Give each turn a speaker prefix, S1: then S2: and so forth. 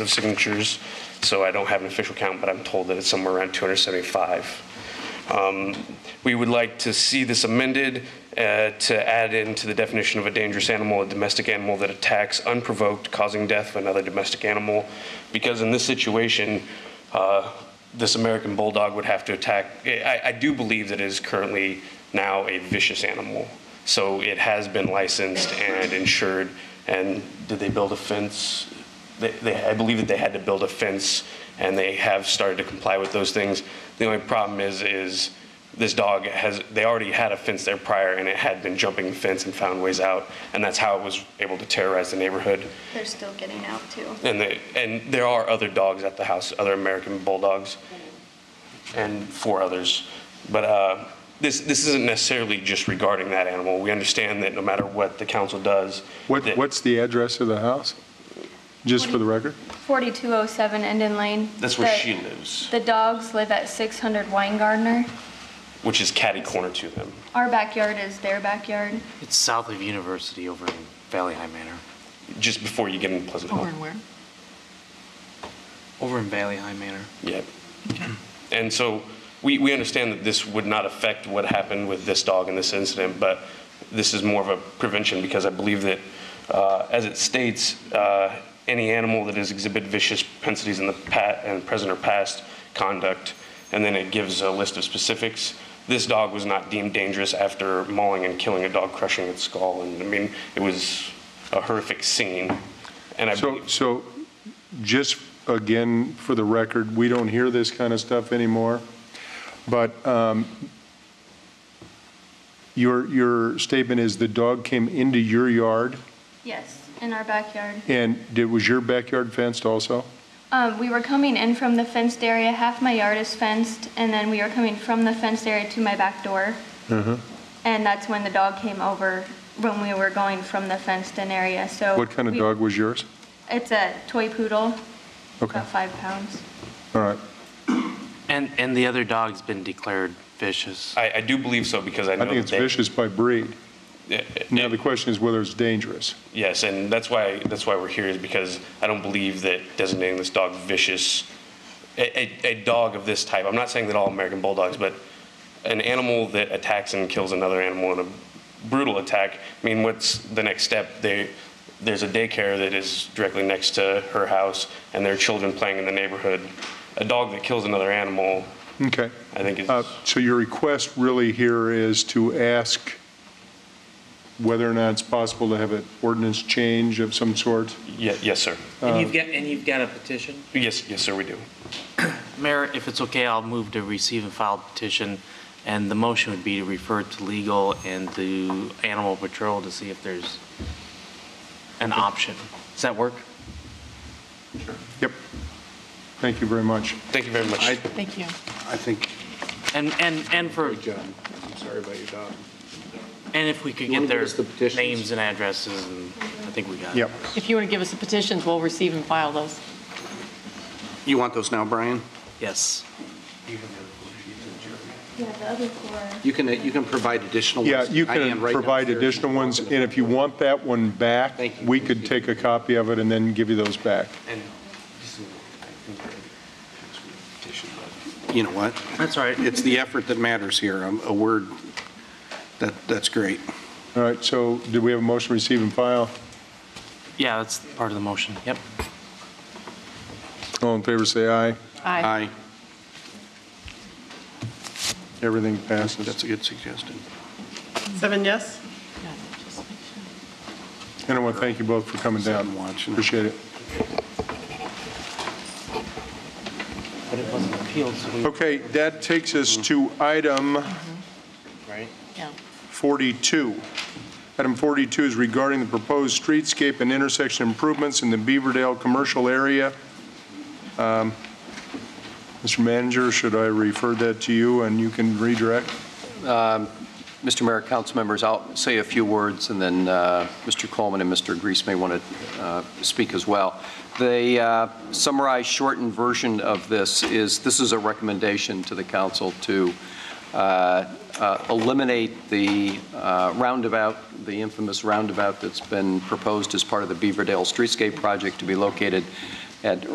S1: of signatures, so I don't have an official count, but I'm told that it's somewhere around 275. Um, We would like to see this amended uh, to add into the definition of a dangerous animal, a domestic animal that attacks unprovoked, causing death of another domestic animal. Because in this situation, uh, this American bulldog would have to attack, I, I do believe that it is currently now a vicious animal. So it has been licensed and insured, and did they build a fence? they, they, I believe that they had to build a fence, and they have started to comply with those things. The only problem is, is this dog has, they already had a fence there prior, and it had been jumping the fence and found ways out, and that's how it was able to terrorize the neighborhood.
S2: They're still getting out too.
S1: And they, and there are other dogs at the house, other American bulldogs, and four others. But uh, this, this isn't necessarily just regarding that animal. We understand that no matter what the council does.
S3: What,
S1: that-
S3: what's the address of the house? Just for the record?
S2: 4207 Enden Lane.
S1: That's where
S2: The-
S1: she lives,
S2: The dogs live at 600 Wine Gardener.
S1: which is catty corner to them.
S2: Our backyard is their backyard.
S4: It's south of University over in Valley High Manor.
S1: just before you get into Pleasant Hill.
S4: where? Over in Valley High Manor.
S1: Yeah. And so we, we understand that this would not affect what happened with this dog in this incident, but this is more of a prevention because I believe that, uh, as it states, uh, any animal that has exhibited vicious propensities in the pat, and present or past conduct, and then it gives a list of specifics. This dog was not deemed dangerous after mauling and killing a dog, crushing its skull, and I mean, it was a horrific scene. And I
S3: So,
S1: believe-
S3: so just again, for the record, we don't hear this kind of stuff anymore, but um, your, your statement is the dog came into your yard
S2: Yes, in our backyard.
S3: and did, was your backyard fenced also?
S2: Um, we were coming in from the fenced area. Half my yard is fenced, and then we were coming from the fenced area to my back door.
S3: Mm-hmm.
S2: And that's when the dog came over when we were going from the fenced in area. So
S3: What kind of
S2: we-
S3: dog was yours?
S2: It's a toy poodle,
S3: Okay,
S2: about five pounds.
S3: all right.
S4: And, and the other dog's been declared vicious.
S1: I, I do believe so because I know
S3: I think
S1: that
S3: it's
S1: they-
S3: vicious by breed.
S1: Yeah,
S3: Now, the question is whether it's dangerous.
S1: Yes, and that's why, that's why we're here is because I don't believe that designating this dog vicious, a, a, a dog of this type, I'm not saying that all American Bulldogs, but an animal that attacks and kills another animal in a brutal attack, I mean, what's the next step? They, there's a daycare that is directly next to her house and there are children playing in the neighborhood. A dog that kills another animal,
S3: Okay.
S1: I think is.
S3: Uh, So your request really here is to ask whether or not it's possible to have an ordinance change of some sort?
S1: Ye- yes, sir.
S5: And
S6: Uh,
S5: you've got, and you've got a petition?
S1: Yes, yes, sir, we do.
S4: Mayor, if it's okay, I'll move to receive and file petition, and the motion would be to refer to legal and to Animal Patrol to see if there's an option. Does that work?
S3: Yep. Thank you very much.
S1: Thank you very much.
S6: I,
S7: Thank you.
S6: I think,
S4: And, and, and for,
S6: good job. I'm sorry about your dog.
S4: and if we could
S6: You
S4: get
S6: wanna give
S4: their
S6: us the petitions?
S4: names and addresses, and I think we got it.
S3: Yep.
S7: If you want to give us the petitions, we'll receive and file those.
S6: You want those now, Brian?
S4: Yes.
S2: Yeah, the other four.
S6: You can, you can provide additional ones.
S3: Yeah, you
S6: I am
S3: can
S6: right
S3: provide
S6: downstairs.
S3: additional ones, and if you want that one back,
S6: Thank you.
S3: we could take a copy of it and then give you those back.
S6: And this is- You know what?
S4: That's all right.
S6: It's the effort that matters here. Um, A word, that, that's great.
S3: All right, so do we have a motion to receive and file?
S4: Yeah, that's part of the motion. Yep.
S3: All in favor, say aye.
S7: Aye.
S6: Aye.
S3: Everything
S6: That's
S3: passes.
S6: a good suggestion.
S8: Seven yes?
S7: Yeah, just make sure.
S3: And I want to thank you both for coming down.
S6: Sitting watching.
S3: Appreciate it.
S4: But it wasn't appealed, so we.
S3: Okay, that takes us to item
S4: Right.
S7: Yeah.
S3: 42. Item 42 is regarding the proposed streetscape and intersection improvements in the Beaverdale commercial area. Um, Mr. Manager, should I refer that to you and you can redirect?
S9: Mr. Mayor, council members, I'll say a few words, and then uh, Mr. Coleman and Mr. Grease may want to uh, speak as well. The uh, summarized, shortened version of this is, this is a recommendation to the council to uh, uh, eliminate the uh, roundabout, the infamous roundabout that's been proposed as part of the Beaverdale Streetscape project to be located at